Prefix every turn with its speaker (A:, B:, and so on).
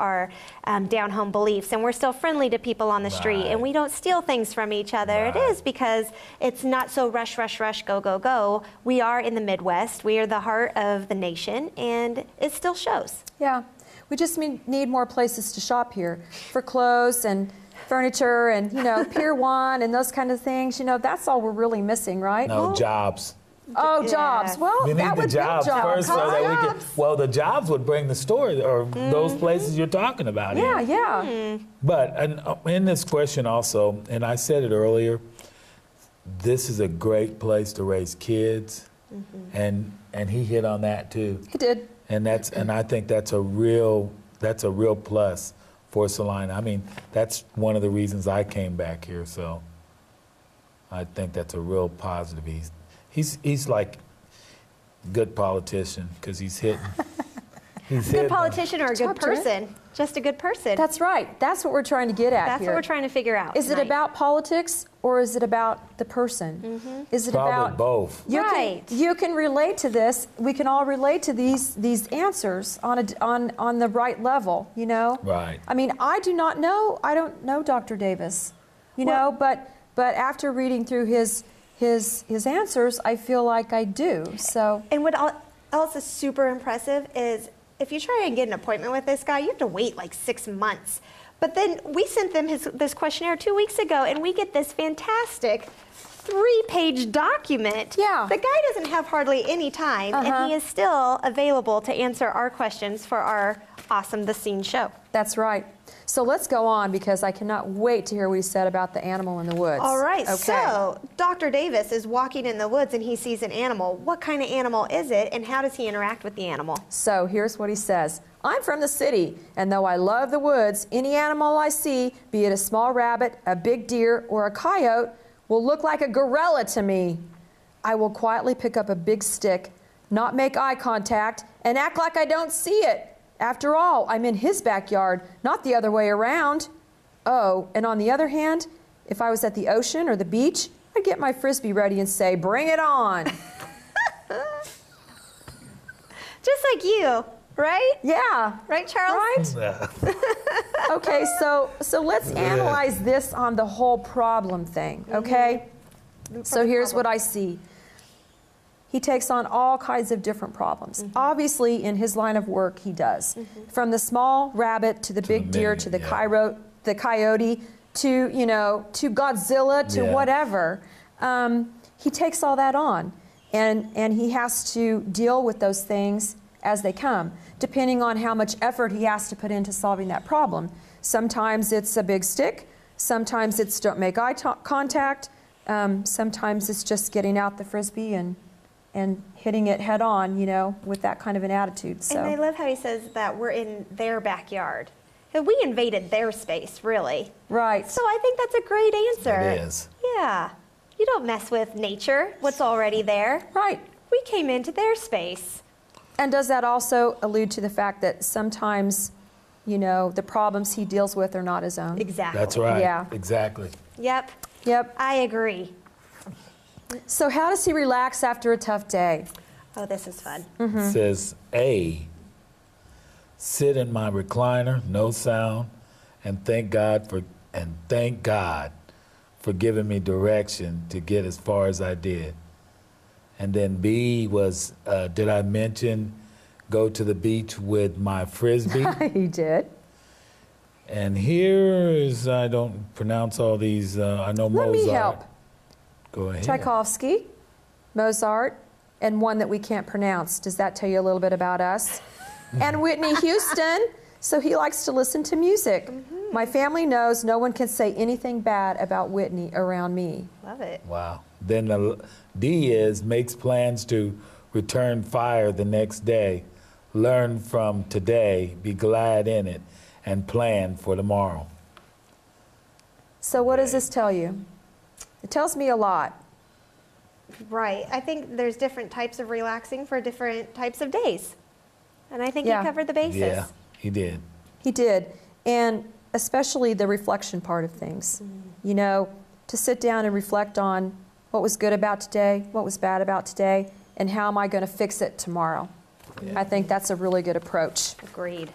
A: our um, down home beliefs, and we're still friendly to people on the street, and we don't steal things from each other. It
B: Right.
A: is because it's not so rush, rush, rush, go, go, go. We are in the Midwest, we are the heart of the nation, and it still shows.
C: Yeah, we just need, need more places to shop here for clothes and furniture and you know Pier One and those kind of things. You know, that's all we're really missing, right?
B: No
C: Well,
B: jobs.
C: Oh,
A: Yeah.
C: jobs. Well,
B: We need
C: that
B: the
C: would
B: jobs
C: be jobs.
B: first, so that we can.
C: Jobs.
B: Well, the jobs would bring the story or those places you're talking about. in.
C: Mm-hmm.
A: Mm.
C: Yeah, yeah.
B: But and, uh, in this question also, and I said it earlier, this is a great place to raise kids,
C: Mm-hmm.
B: and and he hit on that too,
C: He did.
B: and that's and I think that's a real that's a real plus for Salina. I mean, that's one of the reasons I came back here. So I think that's a real positive. He's he's he's like good politician because he's hitting. He's
A: Good
B: hitting them.
A: politician or a good
C: Talk to it.
A: person, just a good person.
C: That's right. That's what we're trying to get at
A: That's
C: here.
A: what we're trying to figure out.
C: Is it
A: tonight.
C: about politics or is it about the person?
A: Mm-hmm.
C: Is it
B: Probably
C: about
B: both.
C: You
A: Right.
C: Can, you can relate to this. We can all relate to these these answers on a d on on the right level. You know.
B: Right.
C: I mean, I do not know. I don't know Dr. Davis. You know, but but after reading through his his his answers, I feel like I do. So
A: And what al- else is super impressive is if you try and get an appointment with this guy, you have to wait like six months. But then we sent them his, this questionnaire two weeks ago, and we get this fantastic three-page document.
C: Yeah.
A: The guy doesn't have hardly any time, and he
C: Uh-huh.
A: is still available to answer our questions for our awesome The Scene show.
C: that's right. So let's go on because I cannot wait to hear what he said about the animal in the woods.
A: All right,
C: Okay.
A: so Dr. Davis is walking in the woods and he sees an animal. What kind of animal is it, and how does he interact with the animal?
C: So here's what he says I'm from the city, and though I love the woods, any animal I see, be it a small rabbit, a big deer, or a coyote, will look like a gorilla to me. I will quietly pick up a big stick, not make eye contact, and act like I don't see it. After all, I'm in his backyard, not the other way around. Oh, and on the other hand, if I was at the ocean or the beach, I'd get my frisbee ready and say, Bring it on.
A: Just like you, right?
C: yeah.
A: Right, Charles?
C: Right? Okay, so so let's analyze this on the whole problem thing, okay? So here's what I see. He takes on all kinds of different problems. Obviously, in his line of work, he does. From the small rabbit to the big
B: the
C: deer
B: many,
C: to the
B: yeah.
C: Cairo, the coyote to you know to Godzilla to
B: Yeah.
C: whatever. Um, he takes all that on, and and he has to deal with those things as they come, depending on how much effort he has to put into solving that problem. Sometimes it's a big stick. Sometimes it's don't make eye to- contact. Um, sometimes it's just getting out the frisbee and and hitting it head on, you know, with that kind of an attitude. So
A: And I love how he says that we're in their backyard. That we invaded their space, really.
C: right.
A: So I think that's a great answer.
B: It is.
A: Yeah. You don't mess with nature, what's already there.
C: Right.
A: We came into their space.
C: And does that also allude to the fact that sometimes, you know, the problems he deals with are not his own?
A: Exactly.
B: That's right.
C: Yeah.
B: Exactly.
A: Yep.
C: Yep.
A: I agree.
C: So, how does he relax after a tough day?
A: Oh, this is fun.
C: Mm-hmm.
B: says A, sit in my recliner, no sound, and thank God for and thank God for giving me direction to get as far as I did. And then B was, uh, did I mention go to the beach with my frisbee?
C: he did.
B: and here is I don't pronounce all these. Uh, I know
C: Let
B: Mozart.
C: me help.
B: Go ahead.
C: Tchaikovsky, Mozart, and one that we can't pronounce. Does that tell you a little bit about us? and Whitney Houston. So he likes to listen to music. My family knows no one can say anything bad about Whitney around me.
A: Love it.
B: Wow. Then the l- D is makes plans to return fire the next day, learn from today, be glad in it, and plan for tomorrow.
C: So, what does this tell you? It tells me a lot.
A: Right. I think there's different types of relaxing for different types of days. And I think
C: Yeah.
A: he covered the bases.
B: Yeah, he did.
C: He did. And especially the reflection part of things. You know, to sit down and reflect on what was good about today, what was bad about today, and how am I going to fix it tomorrow. I think that's a really good approach.
A: Agreed.